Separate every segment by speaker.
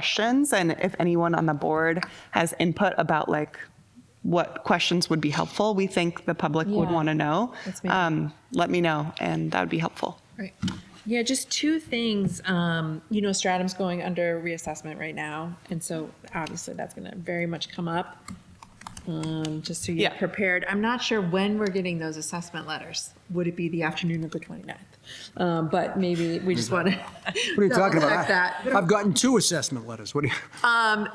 Speaker 1: questions and if anyone on the board has input about like what questions would be helpful, we think the public would
Speaker 2: Yeah.
Speaker 1: want to know.
Speaker 2: That's amazing.
Speaker 1: Um, let me know and that would be helpful.
Speaker 2: Right. Yeah, just two things. Um, you know, Stratum's going under reassessment right now, and so obviously that's going to very much come up. Um, just so you're
Speaker 1: Yeah.
Speaker 2: prepared. I'm not sure when we're getting those assessment letters. Would it be the afternoon of the 29th? Um, but maybe we just want to.
Speaker 3: What are you talking about?
Speaker 2: That. Um,
Speaker 3: I- I've gotten two assessment letters. What do you,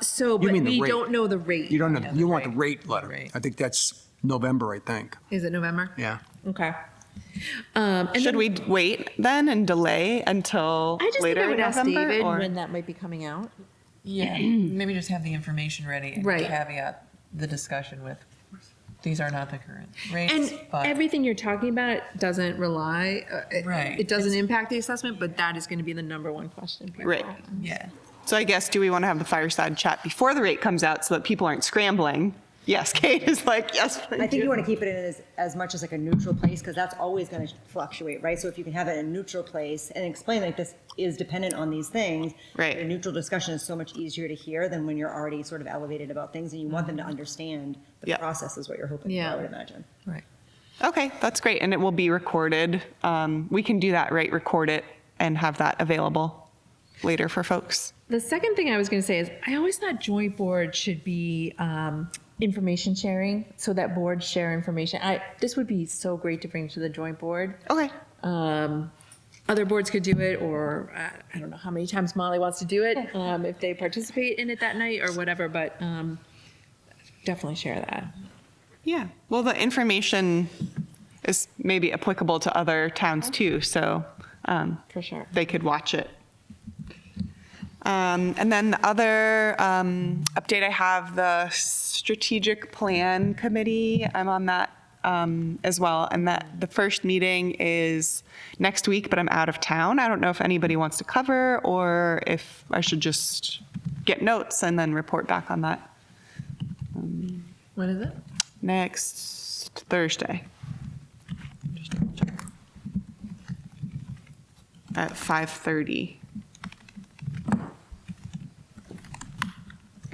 Speaker 2: So, but
Speaker 3: mean the
Speaker 2: we
Speaker 3: rate.
Speaker 2: don't know the rate.
Speaker 3: you don't know,
Speaker 2: yet,
Speaker 3: you want the
Speaker 2: right?
Speaker 3: rate letter.
Speaker 2: Right.
Speaker 3: I think that's November, I think.
Speaker 2: Is it November?
Speaker 3: Yeah.
Speaker 2: Okay. Um, and
Speaker 1: Should
Speaker 2: then
Speaker 1: we d- wait then and delay until
Speaker 2: I just think
Speaker 1: later
Speaker 2: I
Speaker 1: in
Speaker 2: would ask
Speaker 1: November?
Speaker 2: David
Speaker 1: or-
Speaker 2: when that might be coming out.
Speaker 4: Yeah, maybe just have the information ready and
Speaker 2: Right.
Speaker 4: caveat the discussion with, these are not the current rates,
Speaker 2: And
Speaker 4: but
Speaker 2: everything you're talking about doesn't rely, uh, it-
Speaker 4: Right.
Speaker 2: it doesn't impact the assessment, but that is going to be the number one question. people
Speaker 1: Right.
Speaker 2: have.
Speaker 4: yeah.
Speaker 1: So I guess, do we want to have the fireside chat before the rate comes out so that people aren't scrambling? Yes, Kate is like, yes, please.
Speaker 5: I think you want to keep it in as, as much as like a neutral place because that's always going to fluctuate, right? So if you can have it in a neutral place and explain like this is dependent on these things,
Speaker 1: Right.
Speaker 5: A neutral discussion is so much easier to hear than when you're already sort of elevated about things and you want them to understand the
Speaker 1: Mm-hmm. Yeah.
Speaker 5: process is what you're hoping
Speaker 2: Yeah.
Speaker 5: for, I would imagine.
Speaker 4: Right.
Speaker 1: Okay, that's great. And it will be recorded. Um, we can do that, right? Record it and have that available later for folks.
Speaker 2: The second thing I was going to say is I always thought joint board should be um, information sharing so that boards share information. I, this would be so great to bring to the joint board.
Speaker 1: Okay.
Speaker 2: Um, other boards could do it, or uh, I don't know how many times Molly wants to do it, um, if they participate in it that night or whatever, but um, definitely share that.
Speaker 1: Yeah. Well, the information is maybe applicable to other towns too, so um,
Speaker 2: For sure.
Speaker 1: they could watch it. Um, and then the other um, update I have the strategic plan committee. I'm on that um, as well, and that the first meeting is next week, but I'm out of town. I don't know if anybody wants to cover or if I should just get notes and then report back on that
Speaker 2: What is it?
Speaker 1: next Thursday. At 5:30.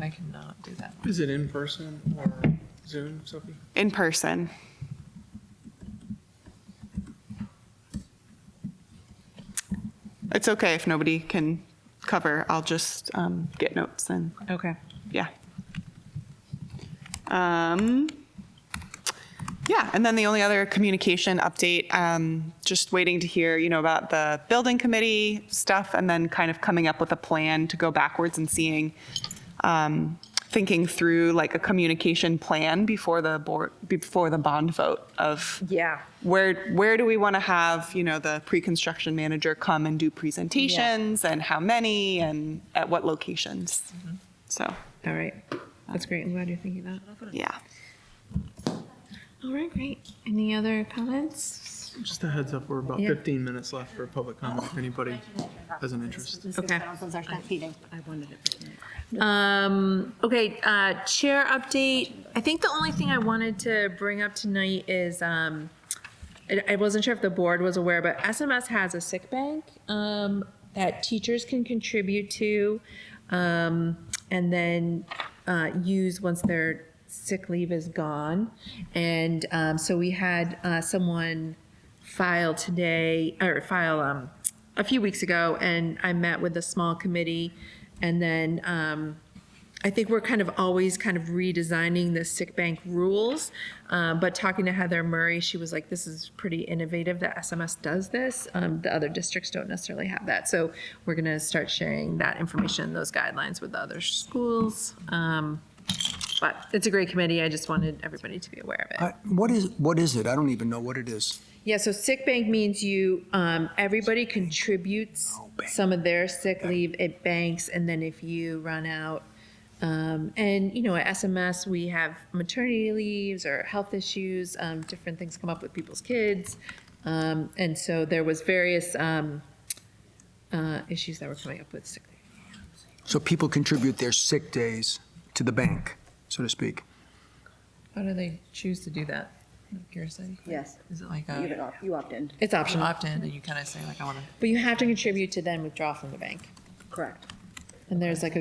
Speaker 4: I cannot do that.
Speaker 6: Is it in person or Zoom, Sophie?
Speaker 1: in person. It's okay if nobody can cover. I'll just um, get notes and
Speaker 2: Okay.
Speaker 1: yeah. Um, yeah, and then the only other communication update, um, just waiting to hear, you know, about the building committee stuff and then kind of coming up with a plan to go backwards and seeing, um, thinking through like a communication plan before the board, before the bond vote of
Speaker 2: Yeah.
Speaker 1: where where do we want to have you know the pre-construction manager come and do presentations and how many and at what locations so
Speaker 2: All right. That's great. I'm glad you're thinking that.
Speaker 1: yeah
Speaker 2: All right, great. Any other comments?
Speaker 6: Just a heads up, we're about
Speaker 2: Yeah.
Speaker 6: 15 minutes left for public comment, if anybody has an interest.
Speaker 2: Okay.
Speaker 5: I wanted it.
Speaker 2: Um, okay, uh, chair update. I think the only thing I wanted to bring up tonight is, um, I, I wasn't sure if the board was aware, but SMS has a sick bank, um, that teachers can contribute to, um, and then, uh, use once their sick leave is gone. And, um, so we had, uh, someone file today, or file, um, a few weeks ago, and I met with a small committee, and then, um, I think we're kind of always kind of redesigning the sick bank rules. Um, but talking to Heather Murray, she was like, this is pretty innovative that SMS does this. Um, the other districts don't necessarily have that. So we're going to start sharing that information, those guidelines with other schools. Um, but it's a great committee. I just wanted everybody to be aware of it.
Speaker 3: I- What is, what is it? I don't even know what it is.
Speaker 2: Yeah, so sick bank means you, um, everybody contributes some of their sick leave at banks, and then if you run out, um, and you know, at SMS, we have maternity leaves or health issues, um, different things come up with people's kids. Um, and so there was various, um, uh, issues that were coming up with sick leave.
Speaker 3: So people contribute their sick days to the bank, so to speak.
Speaker 4: How do they choose to do that? I'm curious. I-
Speaker 5: Yes.
Speaker 4: Is it like
Speaker 5: You have
Speaker 4: a
Speaker 5: it opt- You opt in,
Speaker 2: It's
Speaker 4: option
Speaker 2: optional,
Speaker 4: opt-in and you kind of say like, Uh, I want to
Speaker 2: but you have to contribute to then withdraw from the bank.
Speaker 5: correct.
Speaker 2: And there's like a